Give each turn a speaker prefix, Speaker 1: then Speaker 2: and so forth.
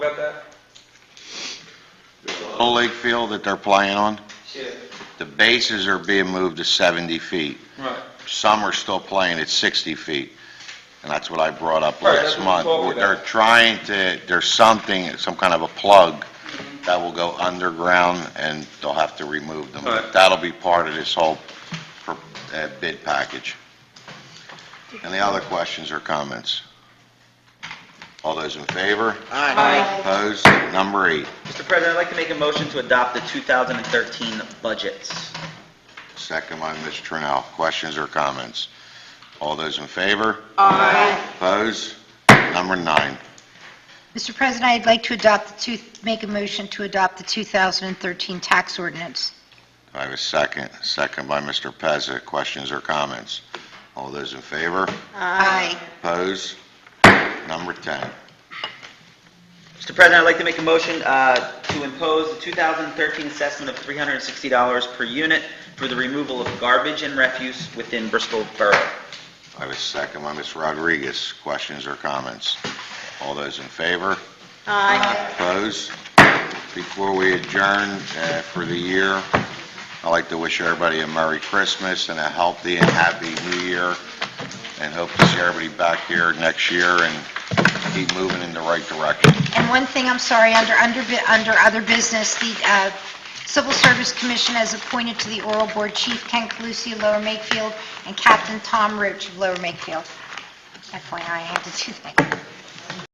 Speaker 1: about that?
Speaker 2: Whole Lake Field that they're playing on,
Speaker 1: Yeah.
Speaker 2: the bases are being moved to 70 feet.
Speaker 1: Right.
Speaker 2: Some are still playing at 60 feet, and that's what I brought up
Speaker 1: Right,
Speaker 2: last
Speaker 1: that's what
Speaker 2: month.
Speaker 1: we talked about.
Speaker 2: They're trying to, there's something, some kind of a plug that will go underground, and they'll have to remove them.
Speaker 1: Right.
Speaker 2: That'll be part of this whole pro- uh, bid package. Any other questions or comments? All those in favor?
Speaker 3: Aye.
Speaker 2: Opposed? Number eight.
Speaker 4: Mr. President, I'd like to make a motion to adopt the 2013 budgets.
Speaker 2: Second by Ms. Trinnell. Questions or comments? All those in favor?
Speaker 3: Aye.
Speaker 2: Opposed? Number nine.
Speaker 5: Mr. President, I'd like to adopt the two, make a motion to adopt the 2013 tax ordinance.
Speaker 2: Do I have a second? Second by Mr. Pezza. Questions or comments? All those in favor?
Speaker 5: Aye.
Speaker 2: Opposed? Number 10.
Speaker 4: Mr. President, I'd like to make a motion uh, to impose the 2013 assessment of $360 per unit for the removal of garbage and refuse within Bristol Borough.
Speaker 2: Do I have a second by Ms. Rodriguez. Questions or comments? All those in favor?
Speaker 3: Aye.
Speaker 2: Opposed? Before we adjourn uh, for the year, I'd like to wish everybody a Merry Christmas and a healthy and happy New Year, and hope to see everybody back here next year and keep moving in the right direction.
Speaker 5: And one thing, I'm sorry, under, under, under other business, the uh, Civil Service Commission has appointed to the oral board Chief Ken Calusi of Lower Makefield and Captain Tom Roach of Lower Makefield. FYI, I had to do that.